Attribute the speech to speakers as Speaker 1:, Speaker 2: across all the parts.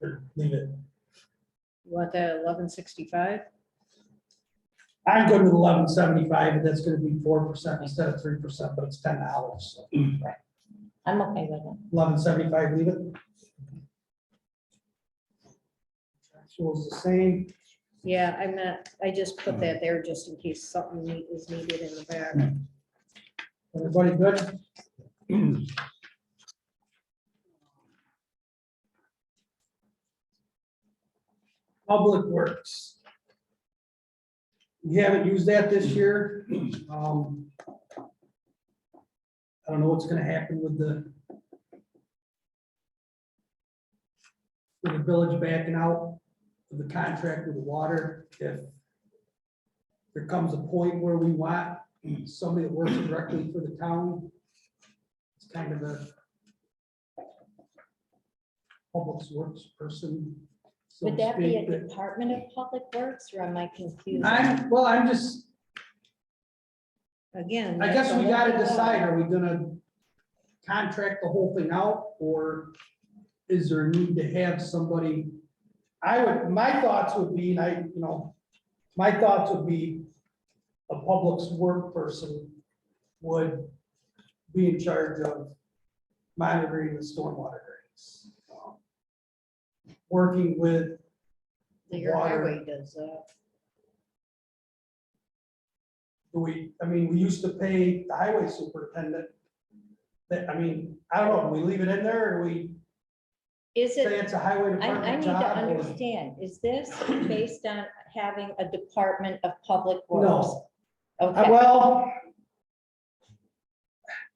Speaker 1: Or leave it.
Speaker 2: What, the eleven sixty-five?
Speaker 1: I'd go to eleven seventy-five, but that's gonna be four percent instead of three percent, but it's ten dollars.
Speaker 3: I'm okay with it.
Speaker 1: Eleven seventy-five, leave it. Actual's the same.
Speaker 2: Yeah, I'm not, I just put
Speaker 1: Uh-huh.
Speaker 2: that there just in case something neat is needed in the back.
Speaker 1: Hmm. Everybody good? Public Works. We haven't used that this year. Um, I don't know what's gonna happen with the with the village backing out of the contract with the water, if there comes a point where we want somebody that works directly for the town. It's kind of a public works person. so
Speaker 3: Would
Speaker 1: to
Speaker 3: that be a
Speaker 1: speak, that-
Speaker 3: Department of Public Works or am I confused?
Speaker 1: I'm, well, I'm just,
Speaker 2: Again.
Speaker 1: I guess
Speaker 2: that's
Speaker 1: we
Speaker 2: a
Speaker 1: gotta
Speaker 2: whole-
Speaker 1: decide, are we gonna contract the whole thing out, or is there a need to have somebody? I would, my thoughts would be, and I, you know, my thoughts would be a public work person would be in charge of monitoring the stormwater drains. um, Working with,
Speaker 2: Your
Speaker 1: water.
Speaker 2: highway does that.
Speaker 1: we, I mean, we used to pay the highway superintendent. That, I mean, I don't know, do we leave it in there, or we
Speaker 3: Is
Speaker 1: say
Speaker 3: it,
Speaker 1: it's a highway
Speaker 3: I,
Speaker 1: department
Speaker 3: I need to
Speaker 1: job? or-
Speaker 3: understand, is this based on having a Department of Public Works?
Speaker 1: No, Uh,
Speaker 3: Okay,
Speaker 1: well. I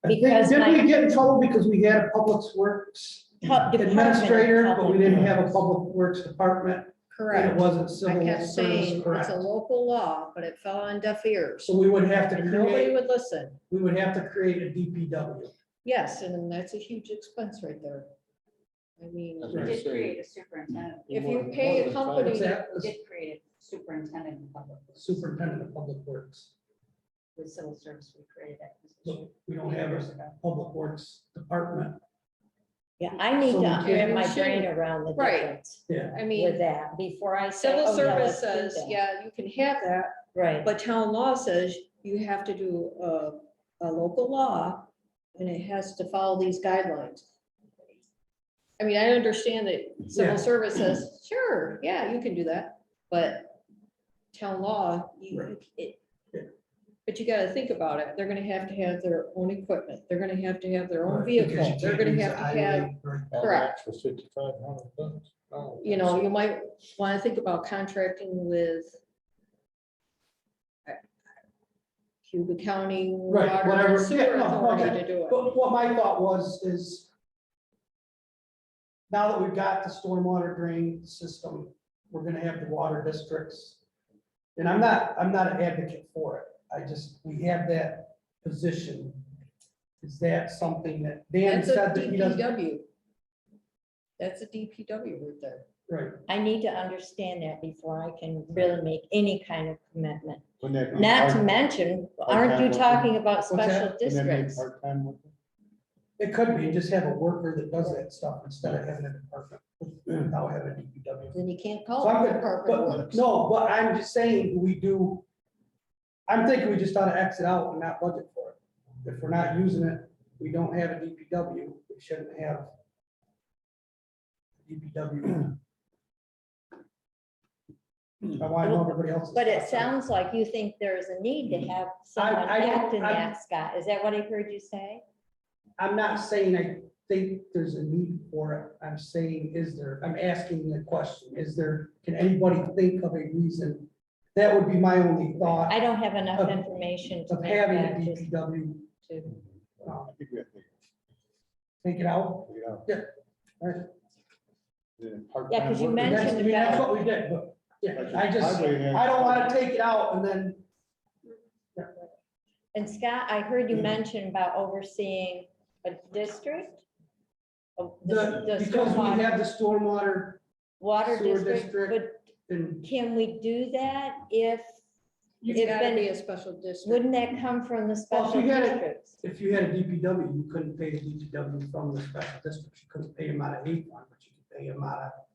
Speaker 1: think-
Speaker 3: Because
Speaker 1: Didn't
Speaker 3: my-
Speaker 1: we get in trouble because we had a public works
Speaker 3: Pub- Department of
Speaker 1: administrator, but we
Speaker 3: Public
Speaker 1: didn't have a
Speaker 3: Works.
Speaker 1: public works department? and It
Speaker 2: Correct.
Speaker 1: wasn't
Speaker 2: I
Speaker 1: civil
Speaker 2: kept
Speaker 1: service,
Speaker 2: saying it's
Speaker 1: correct?
Speaker 2: a local law, but it fell on deaf ears.
Speaker 1: So we would have to
Speaker 2: And nobody
Speaker 1: create,
Speaker 2: would listen.
Speaker 1: we would have to create a DPW.
Speaker 2: Yes, and that's a huge expense right there. I mean,
Speaker 4: That's
Speaker 1: right.
Speaker 4: right.
Speaker 5: Did create a superintendent.
Speaker 2: if
Speaker 4: More-
Speaker 2: you
Speaker 4: more
Speaker 2: pay a
Speaker 4: than five.
Speaker 2: company,
Speaker 1: What's that?
Speaker 5: Did create a superintendent in public,
Speaker 1: Superintendent of Public Works.
Speaker 5: with civil service, we created that position.
Speaker 1: Look, we don't have
Speaker 5: years
Speaker 1: a
Speaker 5: ago.
Speaker 1: public works department.
Speaker 3: Yeah, I need
Speaker 1: So
Speaker 3: to
Speaker 1: we
Speaker 3: wrap
Speaker 2: can't-
Speaker 3: my brain around the
Speaker 2: Right.
Speaker 3: difference
Speaker 1: Yeah,
Speaker 2: I
Speaker 3: with
Speaker 2: mean,
Speaker 3: that before I say.
Speaker 2: civil
Speaker 3: "Oh, yeah, let's
Speaker 2: service
Speaker 3: do
Speaker 2: says,
Speaker 3: that."
Speaker 2: yeah, you can have that,
Speaker 3: Right,
Speaker 2: But town law says you have to do a, a local law and it has to follow these guidelines. I mean, I understand that
Speaker 1: Yeah.
Speaker 2: civil service says, sure, yeah, you can do that, but town law, you,
Speaker 1: Right.
Speaker 2: it.
Speaker 1: Yeah.
Speaker 2: But you gotta think about it. They're gonna have to have their own equipment. They're gonna have to have their own
Speaker 1: Right, because you
Speaker 2: vehicle. They're
Speaker 1: can't
Speaker 2: gonna
Speaker 1: use
Speaker 2: have
Speaker 1: the
Speaker 2: to have,
Speaker 1: highway, right.
Speaker 4: All
Speaker 2: Correct.
Speaker 4: that For fifty-five hundred bucks. Oh,
Speaker 2: you know, you might wanna think about contracting with uh, Cuba County
Speaker 1: Right,
Speaker 2: Water
Speaker 1: whatever.
Speaker 2: and Sewer
Speaker 1: Yeah, no,
Speaker 2: Authority
Speaker 1: okay.
Speaker 2: to do it.
Speaker 1: But what my thought was is now that we've got the stormwater drain system, we're gonna have the water districts. And I'm not, I'm not an advocate for it. I just, we have that position. Is that something that Dan
Speaker 2: That's a
Speaker 1: said that he doesn't,
Speaker 2: DPW. That's a DPW route there.
Speaker 1: right?
Speaker 3: I need to understand that before I can really make any kind of commitment.
Speaker 4: Wouldn't that be
Speaker 3: Not to
Speaker 4: part-
Speaker 3: mention,
Speaker 4: part-time
Speaker 3: aren't you
Speaker 4: worker?
Speaker 3: talking about
Speaker 1: that?
Speaker 3: special
Speaker 4: wouldn't that be
Speaker 3: districts?
Speaker 4: Part-time worker?
Speaker 1: It could be, just have a worker that does that stuff instead of having a department, without having a DPW.
Speaker 2: Then you can't
Speaker 1: So
Speaker 3: Oh,
Speaker 2: call
Speaker 1: I'm
Speaker 2: it
Speaker 1: good,
Speaker 2: Department of
Speaker 1: but,
Speaker 2: Works.
Speaker 1: no, but I'm just saying, we do, I'm thinking we just ought to exit out and not budget for it. If we're not using it, we don't have a DPW, we shouldn't have DPW. I want to know everybody else's.
Speaker 3: But it
Speaker 1: thoughts on
Speaker 3: sounds like you think there is a need to have someone
Speaker 1: I don't-
Speaker 3: act in
Speaker 1: I-
Speaker 3: that, Scott. Is that what I heard you say?
Speaker 1: I'm not saying I think there's a need for it, I'm saying, is there, I'm asking the question, is there, can anybody think of a reason? That would be my only thought.
Speaker 3: I don't have enough
Speaker 1: Of-
Speaker 3: information to
Speaker 1: of
Speaker 3: make
Speaker 1: having
Speaker 3: that.
Speaker 1: the
Speaker 3: just-
Speaker 1: DPW
Speaker 3: to-
Speaker 1: uh,
Speaker 4: I think we have to,
Speaker 1: take it out.
Speaker 4: we have-
Speaker 1: Yeah. Alright.
Speaker 4: Yeah,
Speaker 3: Yeah, 'cause you
Speaker 4: part-time
Speaker 1: That's,
Speaker 4: worker.
Speaker 3: mentioned-
Speaker 1: I mean, that's what we did, but, yeah, I just,
Speaker 4: Highway has-
Speaker 1: I don't wanna take it out and then,
Speaker 3: And Scott, I heard you
Speaker 4: Mhm.
Speaker 3: mention about overseeing a district? Oh, Of
Speaker 1: the,
Speaker 3: the- the
Speaker 1: because we
Speaker 3: stormwater-
Speaker 1: have the stormwater
Speaker 3: Water
Speaker 1: sewer
Speaker 3: district,
Speaker 1: district.
Speaker 3: but
Speaker 1: and.
Speaker 3: can we do that if,
Speaker 2: It's
Speaker 3: It's
Speaker 2: gotta
Speaker 3: been-
Speaker 2: be a special district.
Speaker 3: wouldn't that come from the
Speaker 1: Well, if
Speaker 3: special
Speaker 1: you had it-
Speaker 3: districts?
Speaker 1: If you had a DPW, you couldn't pay the DPW from the special district, you couldn't pay them out of eight one, but you could pay them out of